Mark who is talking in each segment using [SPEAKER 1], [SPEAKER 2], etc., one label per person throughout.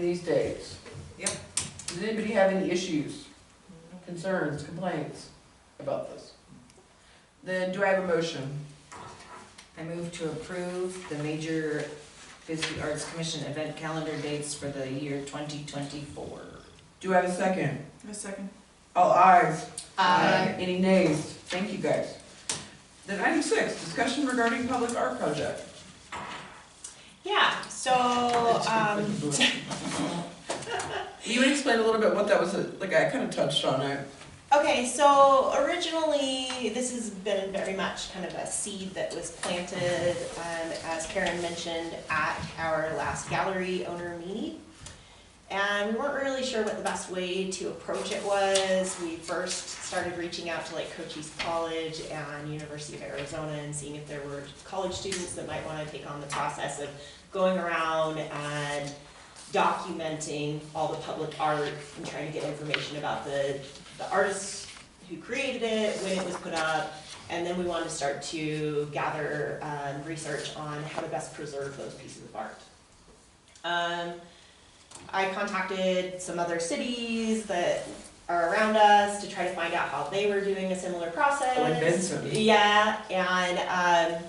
[SPEAKER 1] these days.
[SPEAKER 2] Yep.
[SPEAKER 1] Does anybody have any issues, concerns, complaints about this? Then do I have a motion?
[SPEAKER 2] I move to approve the major Bisbee Arts Commission event calendar dates for the year twenty twenty-four.
[SPEAKER 1] Do I have a second?
[SPEAKER 3] A second.
[SPEAKER 1] All ayes.
[SPEAKER 2] Aye.
[SPEAKER 1] Any nays? Thank you, guys. Then item six, discussion regarding public art project.
[SPEAKER 4] Yeah, so, um,
[SPEAKER 1] Will you explain a little bit what that was, like, I kind of touched on it.
[SPEAKER 4] okay, so originally, this has been very much kind of a seed that was planted, um, as Karen mentioned, at our last gallery owner meeting. And we weren't really sure what the best way to approach it was. We first started reaching out to like Cochise College and University of Arizona and seeing if there were college students that might wanna take on the process of going around and documenting all the public art and trying to get information about the, the artists who created it, when it was put up. And then we wanted to start to gather, um, research on how to best preserve those pieces of art. Um, I contacted some other cities that are around us to try to find out how they were doing a similar process.
[SPEAKER 1] Like Benson.
[SPEAKER 4] Yeah, and um,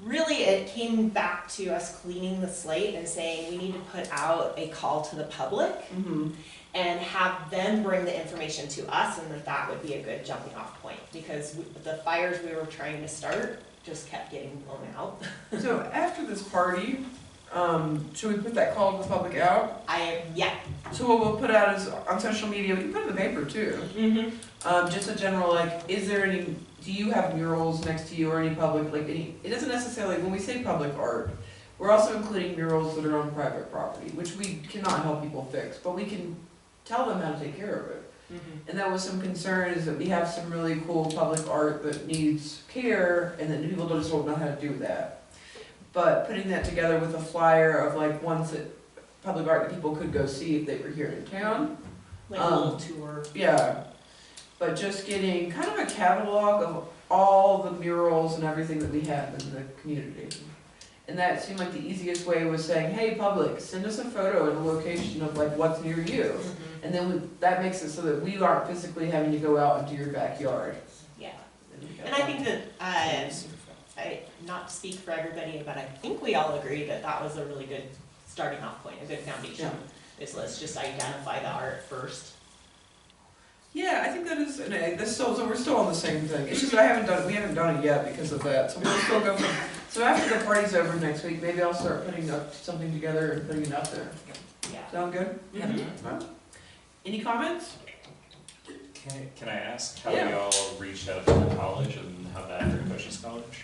[SPEAKER 4] really it came back to us cleaning the slate and saying we need to put out a call to the public
[SPEAKER 1] Mm-hmm.
[SPEAKER 4] and have them bring the information to us and that that would be a good jumping off point because we, the fires we were trying to start just kept getting blown out.
[SPEAKER 1] So after this party, um, should we put that call to the public out?
[SPEAKER 4] I am, yeah.
[SPEAKER 1] So what we'll put out is on social media, we can put it in the paper too.
[SPEAKER 4] Mm-hmm.
[SPEAKER 1] Um, just a general, like, is there any, do you have murals next to you or any public, like, any, it doesn't necessarily, when we say public art, we're also including murals that are on private property, which we cannot help people fix, but we can tell them how to take care of it. And that was some concern, is that we have some really cool public art that needs care, and that people just don't know how to do that. But putting that together with a flyer of like ones that, public art that people could go see if they were here in town,
[SPEAKER 4] Like a little tour.
[SPEAKER 1] yeah, but just getting kind of a catalog of all the murals and everything that we have in the community. And that seemed like the easiest way was saying, hey, public, send us a photo and a location of like what's near you.
[SPEAKER 4] Mm-hmm.
[SPEAKER 1] And then we, that makes it so that we aren't physically having to go out into your backyard.
[SPEAKER 4] Yeah. And I think that, uh, I, not to speak for everybody, but I think we all agree that that was a really good starting off point, a good foundation. Is let's just identify the art first.
[SPEAKER 1] Yeah, I think that is, and I- that's still, so we're still on the same thing, it's just I haven't done, we haven't done it yet because of that, so we'll still go from, so after the party's over next week, maybe I'll start putting up something together and putting it out there.
[SPEAKER 4] Yeah.
[SPEAKER 1] Sound good?
[SPEAKER 4] Yeah.
[SPEAKER 1] Any comments?
[SPEAKER 5] Can, can I ask how
[SPEAKER 1] Yeah.
[SPEAKER 5] we all reached out to the college and how that for Cochise College?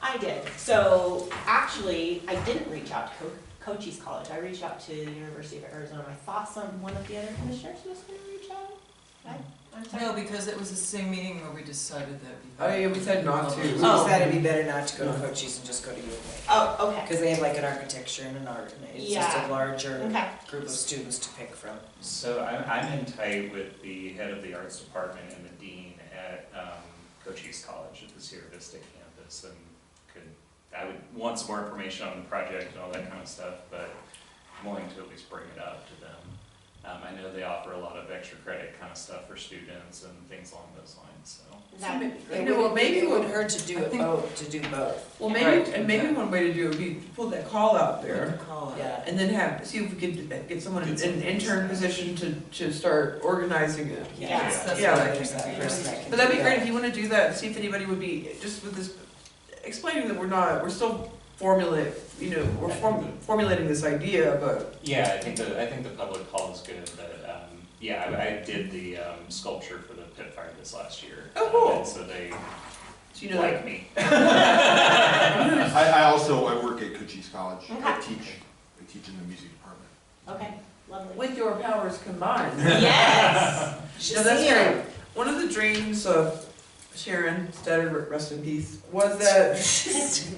[SPEAKER 4] I did. So actually, I didn't reach out to Co- Cochise College. I reached out to the University of Arizona. I thought some one of the other commissioners was going to reach out. I, I'm sorry.
[SPEAKER 3] No, because it was the same meeting where we decided that.
[SPEAKER 1] Oh, yeah, we said not to.
[SPEAKER 3] We
[SPEAKER 4] Oh.
[SPEAKER 3] decided it'd be better not to go to Cochise and just go to U of
[SPEAKER 4] Oh,
[SPEAKER 3] A.
[SPEAKER 4] okay.
[SPEAKER 3] Because they have like an architecture and an art, and it's just
[SPEAKER 4] Yeah.
[SPEAKER 3] a larger
[SPEAKER 4] Okay.
[SPEAKER 3] group of students to pick from.
[SPEAKER 5] So I'm, I'm in tight with the head of the arts department and the dean at um, Cochise College at the Sierra Vista campus. And could, I would want some more information on the project and all that kind of stuff, but I'm willing to at least bring it up to them. Um, I know they offer a lot of extra credit kind of stuff for students and things along those lines, so.
[SPEAKER 4] That-
[SPEAKER 1] You know, well, maybe
[SPEAKER 3] It would
[SPEAKER 1] we'll-
[SPEAKER 3] hurt to do
[SPEAKER 1] I
[SPEAKER 3] it
[SPEAKER 1] think-
[SPEAKER 3] both, to do both.
[SPEAKER 1] Well, maybe, and maybe one way to do it would be to pull that call out there
[SPEAKER 3] Yeah.
[SPEAKER 1] and then have, see if we could get someone in an intern position to, to start organizing it.
[SPEAKER 4] Yes,
[SPEAKER 3] That's
[SPEAKER 1] Yeah.
[SPEAKER 3] why there's that person that can
[SPEAKER 1] But that'd
[SPEAKER 3] do
[SPEAKER 1] be
[SPEAKER 3] that.
[SPEAKER 1] great if you wanna do that, and see if anybody would be, just with this, explaining that we're not, we're still formulate, you know, we're form- formulating this idea, but,
[SPEAKER 5] Yeah, I think the, I think the public call is good, but, um, yeah, I, I did the, um, sculpture for the pit fire this last year.
[SPEAKER 1] Oh, cool.
[SPEAKER 5] And So they
[SPEAKER 1] so you know, like,
[SPEAKER 5] like me.
[SPEAKER 6] I, I also, I work at Cochise College. I
[SPEAKER 4] Okay.
[SPEAKER 6] teach, I teach in the music department.
[SPEAKER 4] Okay. Lovely.
[SPEAKER 1] with your powers combined.
[SPEAKER 4] yes.
[SPEAKER 1] No, that's great. One of the dreams of Sharon, Stetter, rest in peace, was that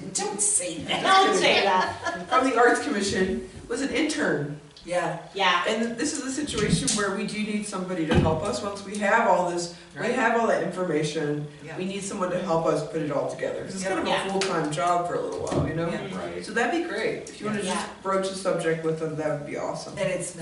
[SPEAKER 3] Don't say that.
[SPEAKER 4] Don't say that.
[SPEAKER 1] from the Arts Commission was an intern.
[SPEAKER 3] Yeah.
[SPEAKER 4] Yeah.
[SPEAKER 1] And this is the situation where we do need somebody to help us once we have all this, we have all that information.
[SPEAKER 3] Yeah.
[SPEAKER 1] We need someone to help us put it all together. 'Cause it's kind of
[SPEAKER 4] Yeah.
[SPEAKER 1] a full-time job for a little while, you know?
[SPEAKER 3] Yeah.
[SPEAKER 5] Right.
[SPEAKER 1] So that'd be great. If you wanna
[SPEAKER 4] Yeah.
[SPEAKER 1] just broach the subject with them, that would be awesome.
[SPEAKER 3] And it's